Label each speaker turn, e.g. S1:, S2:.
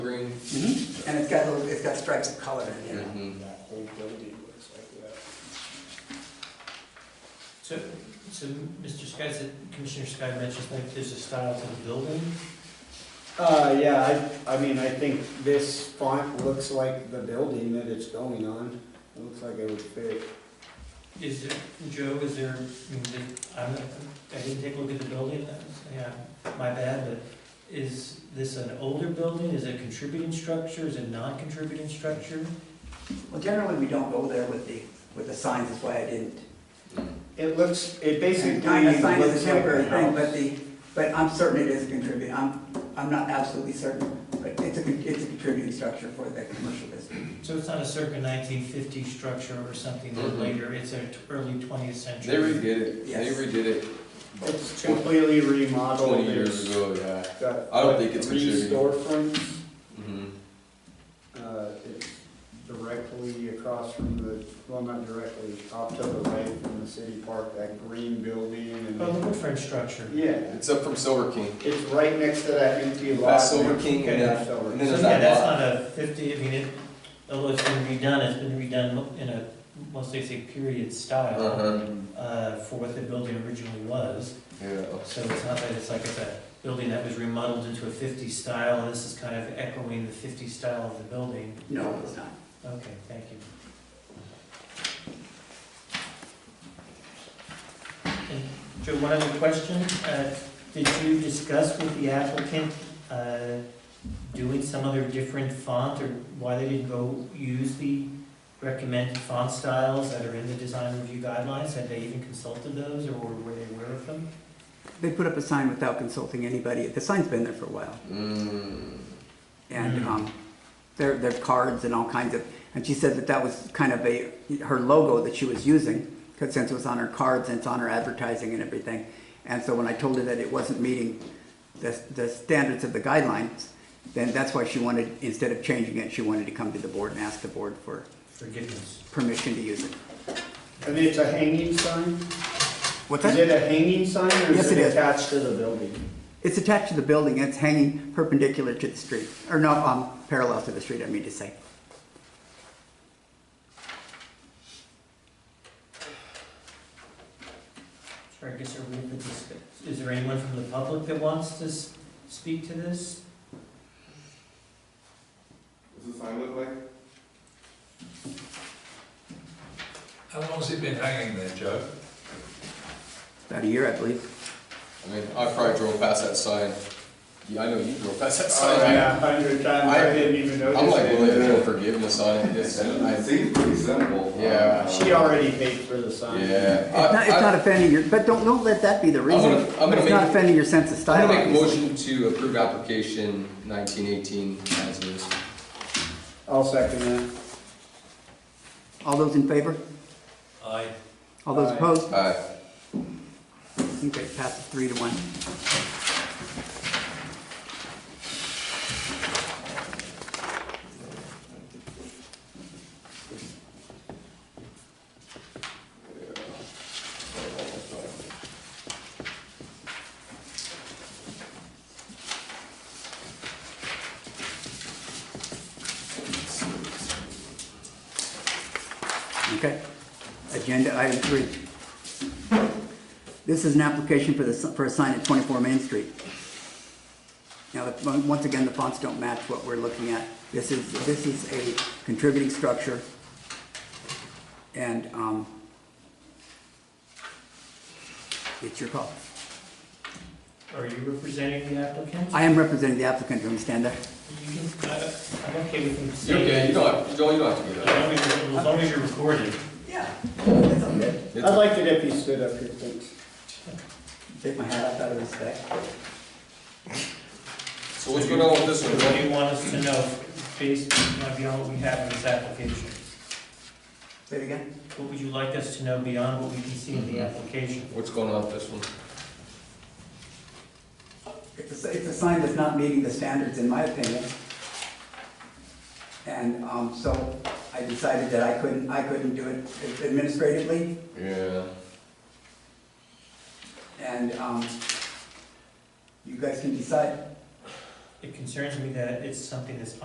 S1: Mm-hmm.
S2: and it's got, little- it's got stripes of color in it.
S3: Mhm.
S1: That whole building looks like that.
S4: So, so Mr. Scott, said- Commissioner Scott mentioned like there's a style to the building.
S1: Uh, yeah, I, I mean, I think this font looks like the building that it's going on. It looks like it would fit.
S4: Is there, Joe, is there, I mean, did- I'm, not- I didn't take a look at the building, that was- yeah, my bad, but is this an older building? Is it a contributing structure? Is it non-contributing structure?
S2: Well, generally, we don't go there with the, with the signs, that's why I didn't.
S3: Mm.
S1: It looks, it basically
S2: And
S1: looks
S2: kind
S1: like
S2: of sign is a temporary
S1: a
S2: thing, but
S1: house.
S2: the, but I'm certain it is a contributing, I'm, I'm not absolutely certain, but it's a, con- it's a contributing structure for the commercial district.
S4: So it's not a circa nineteen fifty structure or something that
S3: Mhm.
S4: later, it's an early twentieth
S3: They
S4: century.
S3: redid it, they
S2: Yes.
S3: redid it
S1: It's completely remodeled.
S3: twenty years
S1: It's
S3: ago, yeah.
S1: got,
S3: I don't
S1: like,
S3: think it's
S1: Three
S3: contributing.
S1: storefronts,
S3: Mhm.
S1: uh, it's directly across from the, well, not directly, off to the right from the city park, that green building
S4: Oh, the
S1: and.
S4: wood frame structure.
S1: Yeah,
S3: It's up from Silver King.
S1: it's right next to that empty lot.
S3: That's Silver King and
S1: Yeah,
S3: that-
S1: Silver
S3: and
S4: So
S3: then-
S1: King.
S3: there's
S4: yeah,
S3: that
S4: that's
S3: lot.
S4: not a fifty, I mean, it, although it's been redone, it's been redone in a, mostly say period style,
S3: Uh-huh,
S4: uh, for what the building originally was.
S3: yeah.
S4: So it's not that it's like it's a building that was remodeled into a 50s style, and this is kind of echoing the 50s style of the building.
S2: No, it's not.
S4: Okay, thank you. And Joe, one other question. Uh, Did you discuss with the applicant uh, doing some other different font, or why they didn't go use the recommended font styles that are in the design review guidelines? Had they even consulted those, or were they aware of them?
S2: They put up a sign without consulting anybody. The sign's been there for a while.
S3: Mm.
S2: And
S4: Mm.
S2: um, there, there are cards and all kinds of, and she said that that was kind of a, her logo that she was using, 'cause since it was on her cards and it's on her advertising and everything. And so when I told her that it wasn't meeting the, the standards of the guidelines, then that's why she wanted, instead of changing it, she wanted to come to the board and ask the board for
S4: Forgiveness.
S2: permission to use it.
S1: And it's a hanging sign?
S2: What's
S1: Is it
S2: that?
S1: a hanging sign or
S2: Yes,
S1: is
S2: it
S1: it
S2: is.
S1: attached to the building?
S2: It's attached to the building and it's hanging perpendicular to the street, or no, um, parallel to the street, I mean to say.
S4: Sure, I guess are we at this, is there anyone from the public that wants to s- speak to this?
S5: What's the sign look like?
S6: How long's it been hanging there, Joe?
S2: About a year, I believe.
S3: I mean, I probably drove past that sign. Yeah, I know you drove past that sign.
S2: Oh,
S1: yeah, a hundred times,
S3: I-
S1: I didn't even notice.
S3: I'm like,
S1: it.
S3: willing to throw forgiveness on it,
S5: It
S3: it's, I,
S5: seems pretty simple.
S3: Yeah.
S1: She already paid for the sign.
S3: yeah.
S2: It's not,
S3: I-
S2: it's
S3: Uh, I-
S2: not offending your, but don't, don't let that be the reason.
S3: gonna- I'm
S2: But
S3: gonna
S2: it's not
S3: make-
S2: offending your sense of
S3: I'm
S2: style.
S3: gonna make a
S2: obviously.
S3: motion to approve application nineteen eighteen as is.
S1: I'll second that.
S2: All those in favor?
S6: Aye.
S2: All those
S1: Aye.
S2: opposed?
S3: Aye.
S2: Okay, passes three to one. Okay. Agenda item three. This is an application for the, for a sign at 24 Main Street. Now, the- once again, the fonts don't match what we're looking at. This is, this is a contributing structure. And, um, it's your call.
S4: Are you representing the applicant?
S2: I am representing the applicant, do you understand that?
S4: You can, I, I'm okay with him
S3: You're
S4: saying.
S3: okay, you don't have, Joel, you don't have to
S4: As
S3: do that.
S4: long as you're- as long as you're recorded.
S2: Yeah. That's all good.
S3: It's-
S1: I'd like it if you stood up here, thanks.
S2: Take my hat off out of respect.
S3: So what's going on with this one,
S4: So What do
S3: Joel?
S4: you want us to know based on beyond what we have in this application?
S2: Say it again?
S4: What would you like us to know beyond what we can see in the application?
S3: What's going on with this one?
S2: It's a, it's a sign that's not meeting the standards, in my opinion. And, um, so I decided that I couldn't, I couldn't do it administratively,
S3: Yeah.
S2: and, um, you guys can decide.
S4: It concerns me that it's something that's